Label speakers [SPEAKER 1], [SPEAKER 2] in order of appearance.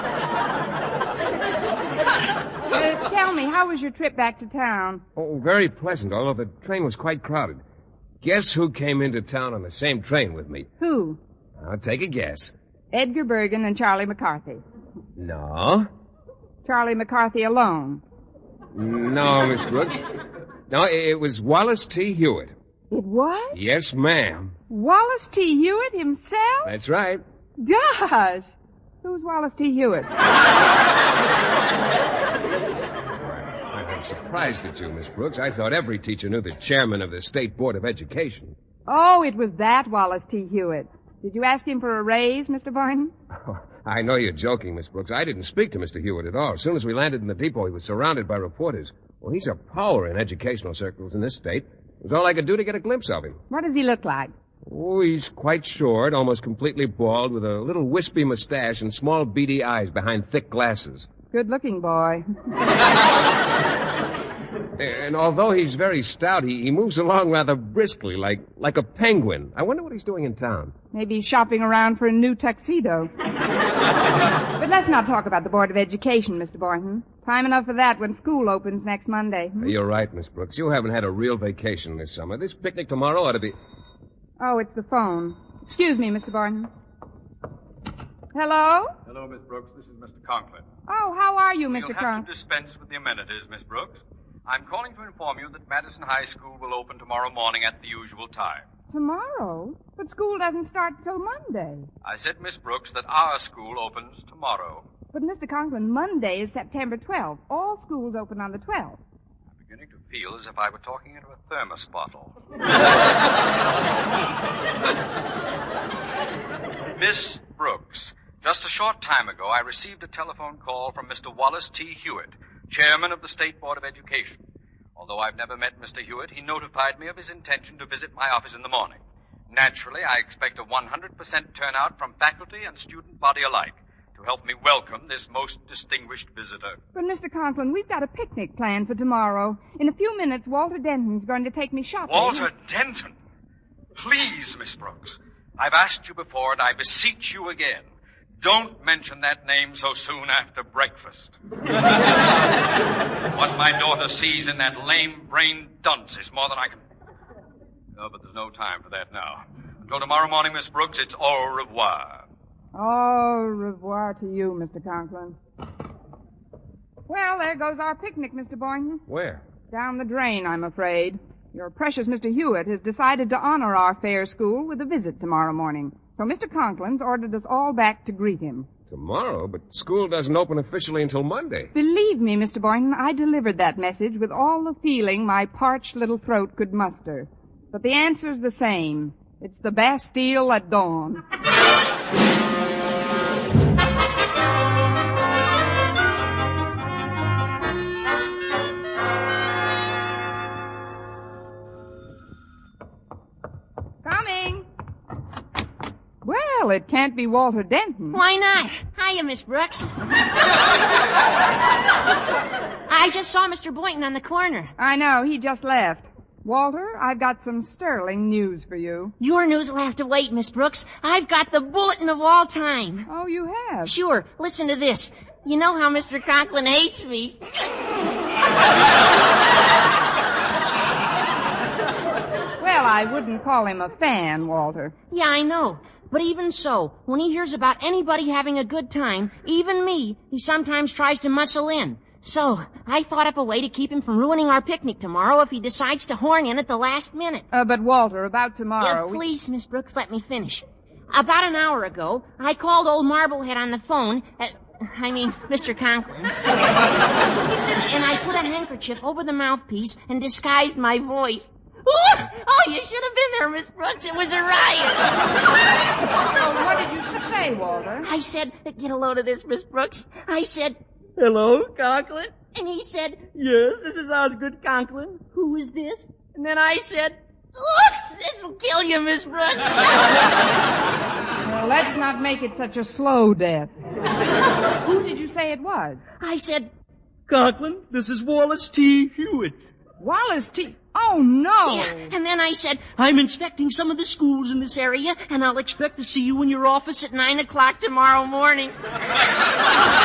[SPEAKER 1] Uh, me, how was your trip back to town?
[SPEAKER 2] Oh, very pleasant, although the train was quite crowded. Guess who came into town on the same train with me?
[SPEAKER 1] Who?
[SPEAKER 2] I'll take a guess.
[SPEAKER 1] Edgar Bergen and Charlie McCarthy.
[SPEAKER 2] No.
[SPEAKER 1] Charlie McCarthy alone.
[SPEAKER 2] No, Miss Brooks. No, it was Wallace T. Hewitt.
[SPEAKER 1] It was?
[SPEAKER 2] Yes, ma'am.
[SPEAKER 1] Wallace T. Hewitt himself?
[SPEAKER 2] That's right.
[SPEAKER 1] Gosh! Who's Wallace T. Hewitt?
[SPEAKER 2] I'm surprised at you, Miss Brooks. I thought every teacher knew the chairman of the State Board of Education.
[SPEAKER 1] Oh, it was that Wallace T. Hewitt. Did you ask him for a raise, Mr. Boynton?
[SPEAKER 2] Oh, I know you're joking, Miss Brooks. I didn't speak to Mr. Hewitt at all. As soon as we landed in the depot, he was surrounded by reporters. Well, he's a power in educational circles in this state. It was all I could do to get a glimpse of him.
[SPEAKER 1] What does he look like?
[SPEAKER 2] Oh, he's quite short, almost completely bald, with a little wispy mustache and small beady eyes behind thick glasses.
[SPEAKER 1] Good looking boy.
[SPEAKER 2] And although he's very stout, he, he moves along rather briskly, like, like a penguin. I wonder what he's doing in town.
[SPEAKER 1] Maybe he's shopping around for a new tuxedo. but let's not talk about the Board of Education, Mr. Boynton. Time enough for that when school opens next Monday. hmm?
[SPEAKER 2] You're right, Miss Brooks. You haven't had a real vacation this summer. This picnic tomorrow ought to be.
[SPEAKER 1] Oh, it's the phone. Excuse me, Mr. Boynton. Hello?
[SPEAKER 3] Hello, Miss Brooks. This is Mr. Conklin.
[SPEAKER 1] Oh, how are you, mister
[SPEAKER 3] You'll
[SPEAKER 1] Cron?
[SPEAKER 3] have to dispense with the amenities, Miss Brooks. I'm calling to inform you that Madison High School will open tomorrow morning at the usual time.
[SPEAKER 1] Tomorrow? But school doesn't start till Monday.
[SPEAKER 3] I said, Miss Brooks, that our school opens tomorrow.
[SPEAKER 1] But, Mr. Conklin, Monday is September 12th. All schools open on the 12th.
[SPEAKER 3] I'm beginning to feel as if I were talking into a thermos bottle. Miss Brooks, just a short time ago, I received a telephone call from Mr. Wallace T. Hewitt, chairman of the State Board of Education. Although I've never met Mr. Hewitt, he notified me of his intention to visit my office in the morning. Naturally, I expect a 100% turnout from faculty and student body alike to help me welcome this most distinguished visitor.
[SPEAKER 1] But, Mr. Conklin, we've got a picnic planned for tomorrow. In a few minutes, Walter Denton's going to take me shopping.
[SPEAKER 3] Walter Denton. Please, Miss Brooks. I've asked you before, and I beseech you again. Don't mention that name so soon after breakfast. what my daughter sees in that lame brained dunce is more than I can. No, but there's no time for that now. Until tomorrow morning, Miss Brooks, it's au revoir.
[SPEAKER 1] Au revoir to you, Mr. Conklin. Well, there goes our picnic, Mr. Boynton.
[SPEAKER 2] Where?
[SPEAKER 1] Down the drain, I'm afraid. Your precious Mr. Hewitt has decided to honor our fair school with a visit tomorrow morning. So Mr. Conklin's ordered us all back to greet him.
[SPEAKER 2] Tomorrow, but school doesn't open officially until Monday.
[SPEAKER 1] Believe me, Mr. Boynton, I delivered that message with all the feeling my parched little throat could muster. But the answer's the same. It's the Bastille at dawn. Coming. Well, it can't be Walter Denton.
[SPEAKER 4] Why not? Hiya, Miss Brooks. I just saw Mr. Boynton on the corner.
[SPEAKER 1] I know, he just left. Walter, I've got some sterling news for you.
[SPEAKER 4] Your news'll have to wait, Miss Brooks. I've got the bulletin of all time.
[SPEAKER 1] Oh, you have?
[SPEAKER 4] Sure, listen to this. You know how Mr. Conklin hates me.
[SPEAKER 1] Well, I wouldn't call him a fan, Walter.
[SPEAKER 4] Yeah, I know. But even so, when he hears about anybody having a good time, even me, he sometimes tries to muscle in. So, I thought up a way to keep him from ruining our picnic tomorrow if he decides to horn in at the last minute.
[SPEAKER 1] Uh, but Walter, about
[SPEAKER 4] Yeah,
[SPEAKER 1] tomorrow. we-
[SPEAKER 4] please, Miss Brooks, let me finish. About an hour ago, I called old Marblehead on the phone. uh, I mean, Mr. Conklin. and I put a handkerchief over the mouthpiece and disguised my voice. Ooh, oh, you should have been there, Miss Brooks. It was a riot.
[SPEAKER 1] Well, what did you say, Walter?
[SPEAKER 4] I said, get a load of this, Miss Brooks. I said, hello, Conklin. And he said, yes, this is Osgood Conklin. Who is this? And then I said, oops, this will kill you, Miss Brooks.
[SPEAKER 1] Well, let's not make it such a slow death. Who did you say it was?
[SPEAKER 4] I said,
[SPEAKER 5] Conklin, this is Wallace T. Hewitt.
[SPEAKER 1] Wallace T. Oh, no.
[SPEAKER 4] And then I said, I'm inspecting some of the schools in this area, and I'll expect to see you in your office at nine o'clock tomorrow morning.